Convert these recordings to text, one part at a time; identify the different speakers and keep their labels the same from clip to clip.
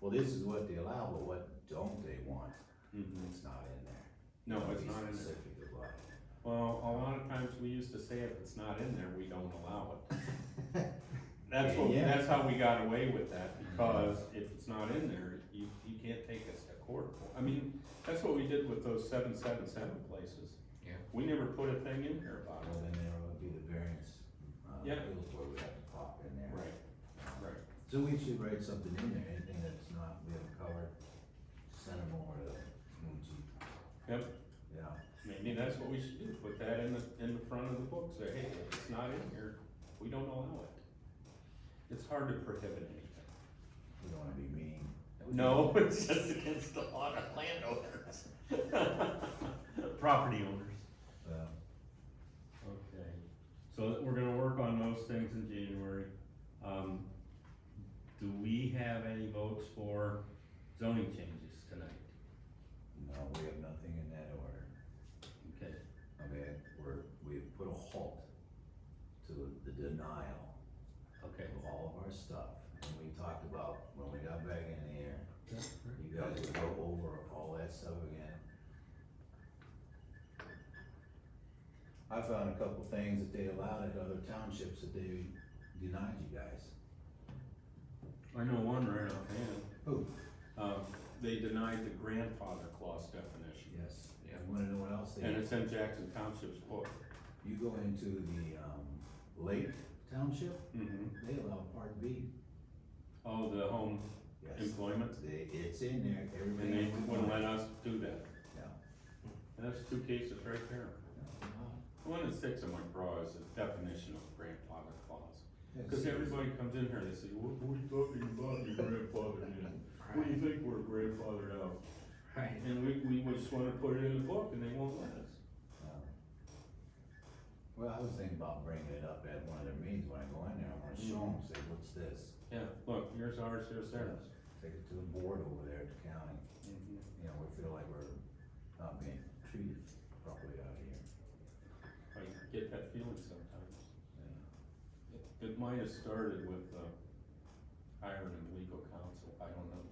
Speaker 1: well, this is what they allow, but what don't they want?
Speaker 2: Mhm.
Speaker 1: It's not in there.
Speaker 2: No, it's
Speaker 1: Be
Speaker 2: not in there.
Speaker 1: Specific about it.
Speaker 2: Well, a lot of times we used to say if it's not in there, we don't allow it. That's what,
Speaker 1: Yeah.
Speaker 2: that's how we got away with that, because if it's not in there, you, you can't take us to court. for- I mean, that's what we did with those seven, seven, seven places.
Speaker 3: Yeah.
Speaker 2: We never put a thing in here about
Speaker 1: Well,
Speaker 2: it.
Speaker 1: then there would be the variance, uh,
Speaker 2: Yeah.
Speaker 1: appeals where we have to pop in there.
Speaker 2: Right, right.
Speaker 1: So we should write something in there, anything that's not, we haven't covered, send them over to Moon Chief.
Speaker 2: Yep.
Speaker 1: Yeah,
Speaker 2: Maybe that's what we should do, put that in the, in the front of the book, say, hey, if it's not in here, we don't allow it. It's hard to prohibit anything.
Speaker 1: we don't wanna be mean.
Speaker 2: No, it's just against the law of landowners. Property owners.
Speaker 1: Uh,
Speaker 2: Okay, so we're gonna work on those things in January. Um, do we have any votes for zoning changes tonight?
Speaker 1: no, we have nothing in that order.
Speaker 2: Okay,
Speaker 1: I mean, we're, we've put a halt to the denial
Speaker 2: okay.
Speaker 1: of all of our stuff. And we talked about, when we got back in here, you guys would go over all that stuff again. I found a couple things that they allowed at other townships that they denied you guys.
Speaker 2: I know one right offhand.
Speaker 1: Who?
Speaker 2: Um, they denied the grandfather clause definition,
Speaker 1: Yes,
Speaker 3: Yeah.
Speaker 1: you wanna know what else they,
Speaker 2: and it's in Jackson Township's book.
Speaker 1: you go into the, um, Lake Township,
Speaker 2: Mm-hmm.
Speaker 1: they allow part B.
Speaker 2: Oh, the home
Speaker 1: Yes,
Speaker 2: employment,
Speaker 1: they, it's in there,
Speaker 2: and they
Speaker 1: everybody.
Speaker 2: wouldn't let us do that.
Speaker 1: Yeah.
Speaker 2: And that's two cases right there. The One that sticks in my craw is the definition of grandfather clause. Cause everybody comes in here and they say, what, what are you talking about, your grandfather in? What do you think we're grandfathered out?
Speaker 3: Right.
Speaker 2: And we, we just wanna put it in the book and they won't let us.
Speaker 1: Um, Well, I was thinking about bringing it up at one of their meetings when I go in there, I'm gonna show them, say, what's this?
Speaker 2: Yeah, look, here's ours, here's theirs.
Speaker 1: Take it to the board over there at the county, you know, we feel like we're not being treated properly out here.
Speaker 2: I get that feeling sometimes.
Speaker 1: Yeah.
Speaker 2: It- It might have started with, uh, hiring a legal counsel, I don't know.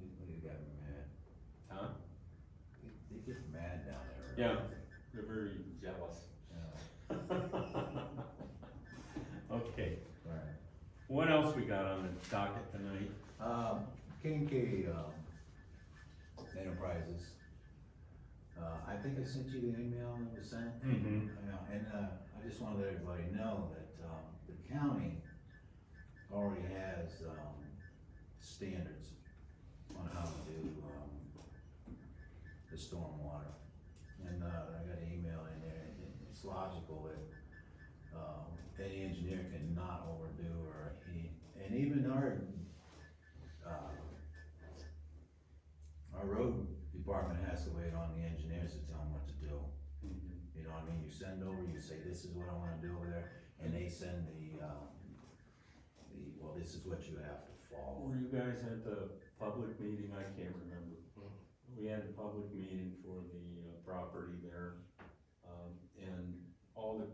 Speaker 1: They they got mad,
Speaker 2: Huh?
Speaker 1: they they get mad down there.
Speaker 2: Yeah. They're very jealous.
Speaker 1: Yeah,
Speaker 2: Okay,
Speaker 1: Right.
Speaker 2: what else we got on the docket tonight?
Speaker 1: Um, K and K, um, Enterprises. Uh, I think I sent you the email that was sent.
Speaker 2: Mm-hmm.
Speaker 1: Yeah, and, uh, I just wanna let everybody know that, um, the county already has, um, standards on how to do, um, the stormwater. And, uh, I got an email in there, and it- it's logical that, um, any engineer cannot overdo or he, and even our, uh, our road department has to wait on the engineers to tell them what to do. You know what I mean? You send over, you say, this is what I wanna do over there, and they send the, um, the, well, this is what you have to follow.
Speaker 2: Were you guys at the public meeting? I can't remember. We had a public meeting for the uh, property there, um, and all the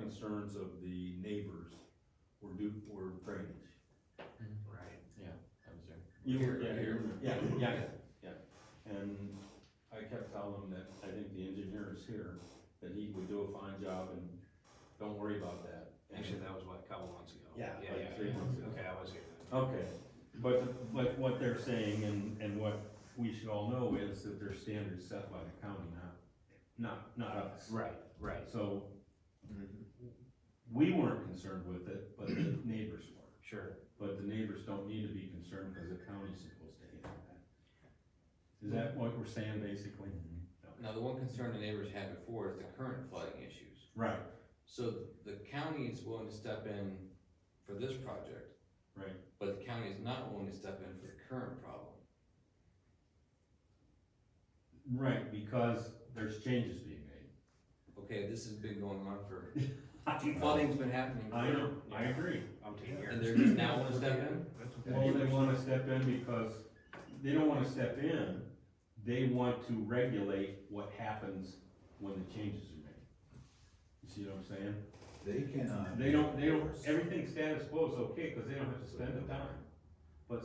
Speaker 2: concerns of the neighbors were due, were drainage.
Speaker 3: Right. Yeah, I was there.
Speaker 2: You were,
Speaker 3: Here,
Speaker 2: yeah,
Speaker 3: here.
Speaker 2: you were- yeah, yeah, yeah. And I kept telling him that I think the engineer is here, that he would do a fine job and don't worry about that. And-
Speaker 3: Actually, that was what, a couple months ago.
Speaker 2: Yeah,
Speaker 3: Yeah,
Speaker 2: like
Speaker 3: yeah,
Speaker 2: three
Speaker 3: yeah.
Speaker 2: months ago.
Speaker 3: Okay, I was here then.
Speaker 2: Okay, but, but what they're saying and, and what we should all know is that there's standards set by the county, not, not, not us.
Speaker 3: Right, right.
Speaker 2: So, we weren't concerned with it, but the neighbors were.
Speaker 3: Sure.
Speaker 2: But the neighbors don't need to be concerned because the county's supposed to handle that. Is that what we're saying basically?
Speaker 4: Now, the one concern the neighbors had before is the current flooding issues.
Speaker 2: Right,
Speaker 4: So the county is willing to step in for this project,
Speaker 2: right.
Speaker 4: but the county is not willing to step in for the current problem.
Speaker 2: Right, because there's changes being made.
Speaker 4: Okay, this has been going on for,
Speaker 2: I
Speaker 4: flooding's been happening
Speaker 2: know,
Speaker 4: for,
Speaker 2: I agree.
Speaker 3: I'm taking
Speaker 4: and
Speaker 3: here.
Speaker 4: they're just now wanting to step in?
Speaker 2: Well, they wanna step in because, they don't wanna step in, they want to regulate what happens when the changes are made. You see what I'm saying?
Speaker 1: They uh, cannot.
Speaker 2: They don't, they don't, everything status quo is okay, cause they don't have to spend the time.